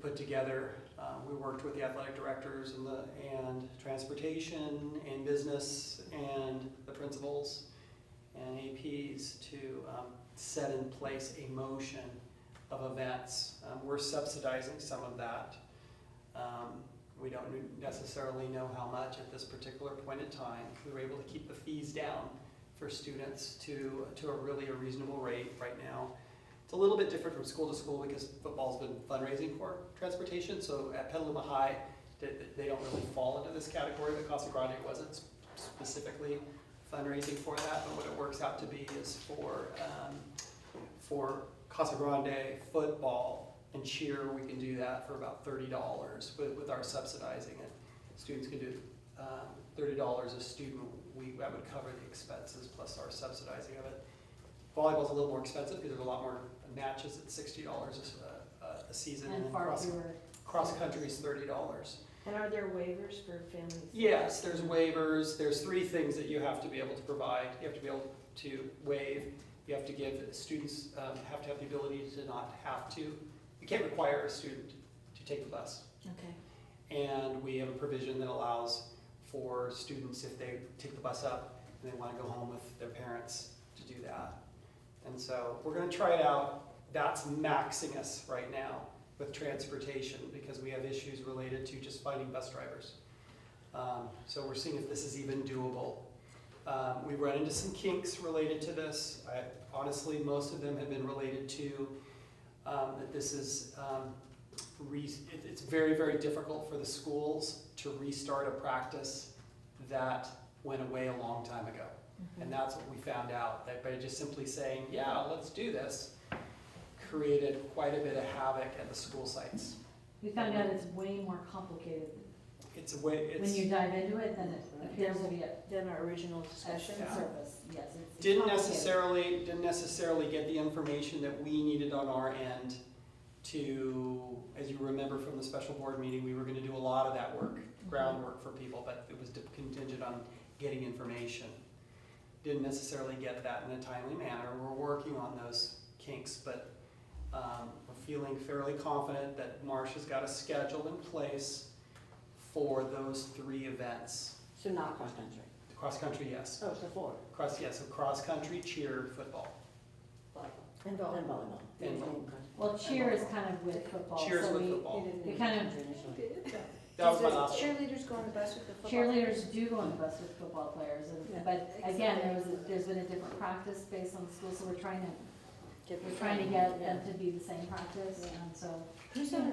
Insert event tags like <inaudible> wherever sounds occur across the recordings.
put together. Uh, We worked with the athletic directors and the, and transportation and business and the principals and APs to um, set in place a motion of events. Um, We're subsidizing some of that. Um, We don't necessarily know how much at this particular point in time. We were able to keep the fees down for students to, to a really a reasonable rate right now. It's a little bit different from school to school because football's been fundraising for transportation, so at Petaluma High, they, they don't really fall into this category, but Casa Grande wasn't specifically fundraising for that, but what it works out to be is for, um, for Casa Grande football and cheer, we can do that for about thirty dollars with, with our subsidizing it. Students can do, um, thirty dollars a student, we, that would cover the expenses plus our subsidizing of it. Volleyball's a little more expensive because there's a lot more matches at sixty dollars a, uh, a season and And far cross, fewer. cross country's thirty dollars. And are there waivers for families? Yes, there's waivers, there's three things that you have to be able to provide. You have to be able to waive, you have to give, students um, have to have the ability to not have to. You can't require a student to take the bus. Okay. And we have a provision that allows for students, if they take the bus up and they want to go home with their parents, to do that. And so we're going to try it out. That's maxing us right now with transportation because we have issues related to just finding bus drivers. Um, So we're seeing if this is even doable. Um, We run into some kinks related to this. I- Honestly, most of them have been related to um, that this is um, re- it- it's very, very difficult for the schools to restart a practice that went away a long time ago. Mm-hmm. Mm-hmm. And that's what we found out, that by just simply saying, yeah, let's do this, created quite a bit of havoc at the school sites. We found out it's way more complicated. It's a way, When you it's, dive into it, then it appears to be a Then our original discussion, Yeah. service, yes. it's- it's didn't complicated. necessarily, didn't necessarily get the information that we needed on our end to, as you remember from the special board meeting, we were gonna do a lot of that work, groundwork for people, but it was contingent on getting information. Didn't necessarily get that in a timely manner. We're working on those kinks, but um, we're feeling fairly confident that Marcia's got a schedule in place for those three events. so not cross-country. Cross-country, yes. So it's the four. Cross, yes, so cross-country, cheer, football. And volleyball. And Well, cheer is kind of with football. Cheer is so with we- football. We kind of, That was my last one. Cheerleaders go on the bus with the football? cheerleaders do go on the bus with football players, Yeah. and, but again, there was, a- there's been a different practice based on the school, so we're trying to, we're trying to get them to be the same practice, and so. Who's on,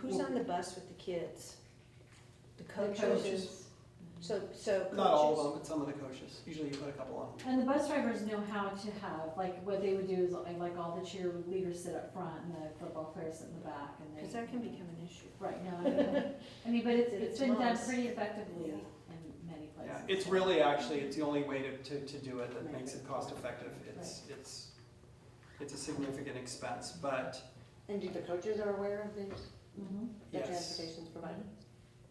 who's on the bus with the kids? The the coaches? Mm-hmm. So, so coaches? Not all of them, but some of the coaches. Usually you put a couple on. And the bus drivers know how to have, like, what they would do is, like, like, all the cheerleaders sit up front and the football players sit in the back, and they. Because that can become an issue. Right, no, I know. I mean, but it's, it's It's been done nice. pretty effectively Yeah. in many places. Yeah, it's really actually, it's the only way to, to, to do it that makes it cost-effective. It's, it's, it's a significant expense, but And do the coaches are aware of this, Mhm. yes. provided?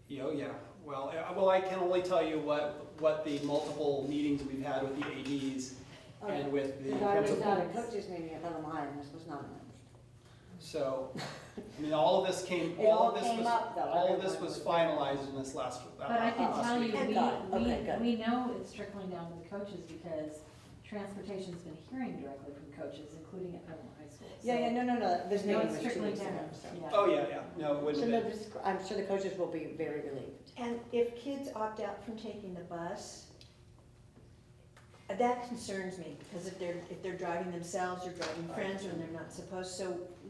Yeah, Oh, yeah, well, I- well, I can only tell you what, what the multiple meetings we've had with the ADs Oh, and with the No, I was principal. not a coaches meeting at Bellem High, and this was not announced. So, I mean, all of this came, <laughs> It all all of this came was, up, though. all of this Everyone was was- finalized in this last, uh, But I can Oh, last tell you, week. Good God. Okay, good. we, we, we know it's trickling down to the coaches because transportation's been hearing directly from coaches, including at Petaluma High School. Yeah, yeah, no, no, no, this No, meeting it's was two trickling weeks ago, down, so. yeah. Oh, yeah, yeah, no, it So wouldn't no, have been. this, I'm sure the coaches will be very relieved. And if kids opt out from taking the bus, uh, that concerns me, because if they're, if they're driving themselves or driving friends when they're not supposed, so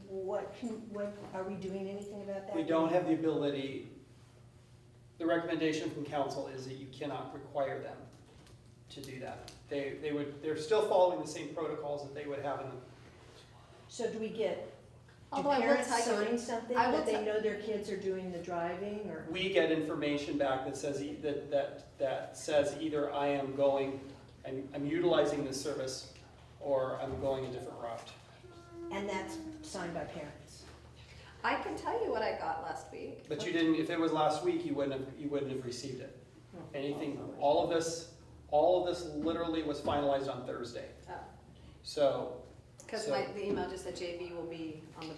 what can, what, are we doing anything about that? We don't have the ability, the recommendation from council is that you cannot require them to do that. They, they would, they're still following the same protocols that they would have in, So do we get, do Although I will parents tell you, sign something I will that tell- they know their kids are doing the driving, or? we get information back that says, e- that, that, that says either I am going, I'm, I'm utilizing this service, or I'm going a different route. And that's signed by parents. I can tell you what I got last week. But you didn't, if it was last week, you wouldn't have, you wouldn't have received it. Anything, all of this, all of this literally was finalized on Thursday. Oh. So Because my, the email just said JV will be on the